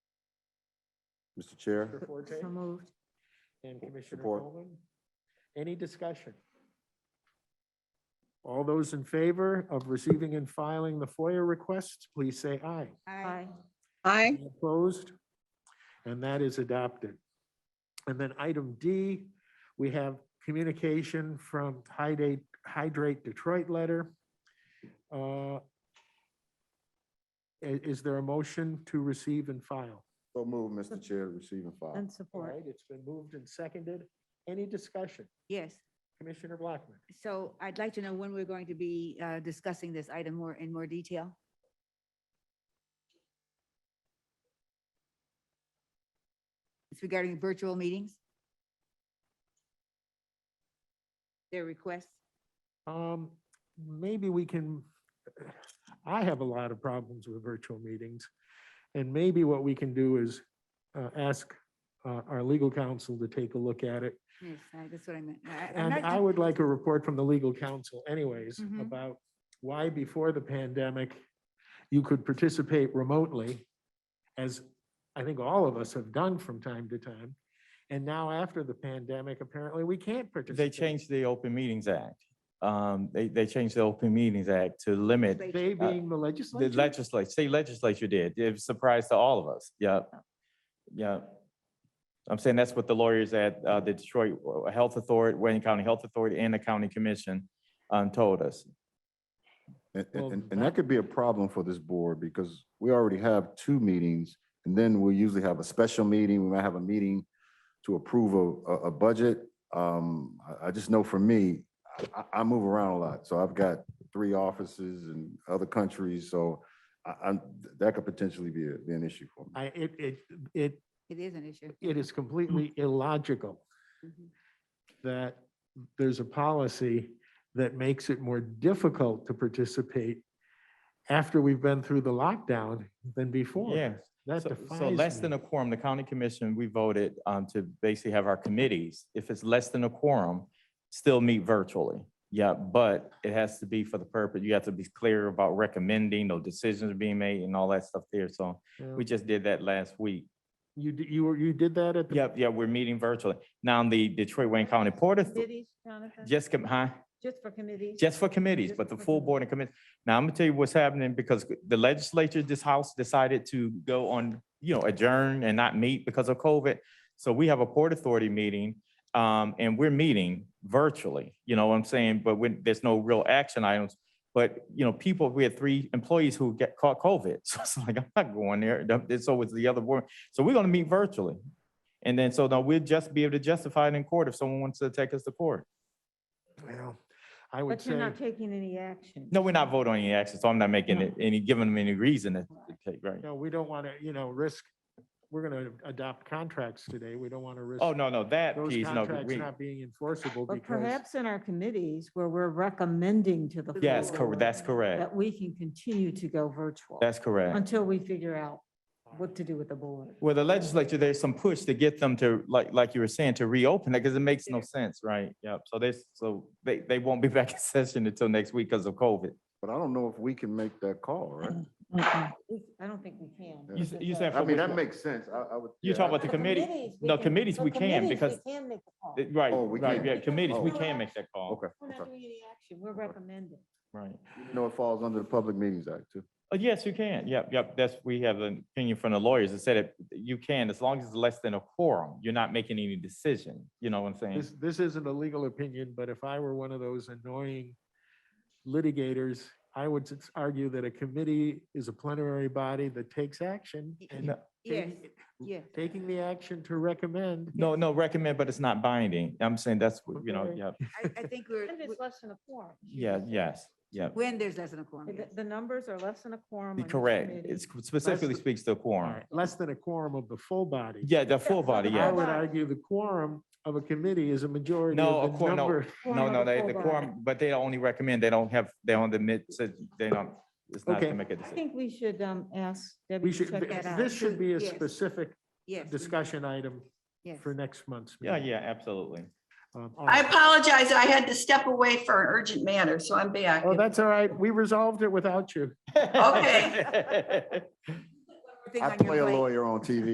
Mr. Chair, Commissioner Forte So moved. and Commissioner Support. Coleman. Any discussion? All those in favor of receiving and filing the FOIA request, please say aye. Aye. Aye. All Opposed? And that is adopted. And then item D, we have communication from Hydrate, Hydrate Detroit letter. Uh, i- Is there a motion to receive and file? so move, Mr. Chair, receive and file. And All support. right, it's been moved and seconded. Any discussion? Yes. Commissioner Blackman? So I'd like to know when we're going to be uh, discussing this item more in more detail. It's regarding virtual meetings. Their requests. Um, maybe we can, I have a lot of problems with virtual meetings. And maybe what we can do is, uh, ask, uh, our legal counsel to take a look at it. Yes, I- that's what I meant. I- I'm And not- I would like a report from the legal counsel anyways Mhm. about why before the pandemic, you could participate remotely, as I think all of us have done from time to time. And now after the pandemic, apparently we can't They participate. changed the Open Meetings Act. Um, they, they changed the Open Meetings Act to limit They uh, being the the legislature. legislature, state legislature did. It was a surprise to all of us. Yep. Yep. I'm saying that's what the lawyers at, uh, the Detroit Health Authority, Wayne County Health Authority and the County Commission, um, told us. And, Well, and, and- and that could be a problem for this board because we already have two meetings. And then we usually have a special meeting. We might have a meeting to approve a, a, a budget. Um, I, I just know for me, I- I, I move around a lot. So I've got three offices in other countries. So I, I'm, that could potentially be, a- be an issue for me. I, it, it, it, It is an issue. it is completely Mm. illogical Mhm. that there's a policy that makes it more difficult to participate after we've been through the lockdown than before. Yeah. That So- defies So less than me. a quorum, the county commission, we voted um, to basically have our committees, if it's less than a quorum, still meet virtually. Yeah, but it has to be for the purpose, you have to be clear about recommending, no decisions being made and all that stuff there. So Yeah. we just did that last week. You, d- you, were- you did that at the. Yep, yeah, we're meeting virtually. Now, the Detroit Wayne County Port Authority, Committees, Jonathan? just, com- huh? Just for committees? Just for committees, but the full board and committee. Now, I'm gonna tell you what's happening because the legislature, this house decided to go on, you know, adjourn and not meet because of COVID. So we have a Port Authority meeting, um, and we're meeting virtually, you know what I'm saying? But when, there's no real action items. But, you know, people, we had three employees who get caught COVID. So it's like, I'm not going there. And So was the other board. So we're gonna meet virtually. And then, so now we'll just be able to justify it in court if someone wants to take us to court. Well, I would But you're say, not taking any action? No, we're not voting on any action, so I'm not making No. it any, giving them any reason to to take, right? no, we don't want to, you know, risk, we're going to adopt contracts today. We don't want to risk Oh, no, no, that those piece, no, contracts we, not being enforceable But because perhaps in our committees where we're recommending to the. yes, full correct, board that's correct. That we can continue to go virtual. That's correct. Until we figure out what to do with the board. Well, the legislature, there's some push to get them to, like, like you were saying, to reopen it, because it makes no sense, right? Yep, so there's, so they, they won't be back in session until next week because of COVID. But I don't know if we can make that call, right? Mm-mm. We- I don't think we can. You s- you said I for mean, which that one? makes sense. I, I would. You yeah, talk I- about the committee- we no, can- committees for we can committees, because- We can make the call. It- Right, Oh, we right, can't. yeah, committees, we Oh. can make that call, Okay, We're okay. not doing any action. We're recommending. right? You know, it falls under the Public Meetings Act too. Oh, yes, you can. Yep, yep. That's, we have an opinion from the lawyers that said it, you can, as long as it's less than a quorum, you're not making any decision. You know what I'm saying? this, this isn't a legal opinion, but if I were one of those annoying litigators, I would s- argue that a committee is a plenary body that takes action. Y- and Yes, taking- yes. Taking the action to recommend. No, no, recommend, but it's not binding. I'm saying that's, what you know, Okay. yeah, I, I think we're, And it's less than a quorum. yeah, yes, yeah. when there's less than a quorum. The, yes. the numbers are less than a quorum. Be on each correct. committee. It specifically speaks to a quorum. Less than a quorum of the full body. Yeah, the full so body, the I yeah. whole would argue the quorum of a committee is a majority No, of a the quorum, no. number. No, of no, they, full the body. quorum, but they only recommend, they don't have, they don't admit, so they don't, it's not Okay. to make a I decision. think we should, um, ask Debbie We to should, check that out. this should be a Yes. specific Yes. we- discussion item yes. for next month's. Yeah, meeting. yeah, absolutely. Um, all I right. apologize. I had to step away for an urgent matter, so I'm back. Oh, that's all right. We resolved it without you. Okay. Things I on your play a plate. lawyer on TV.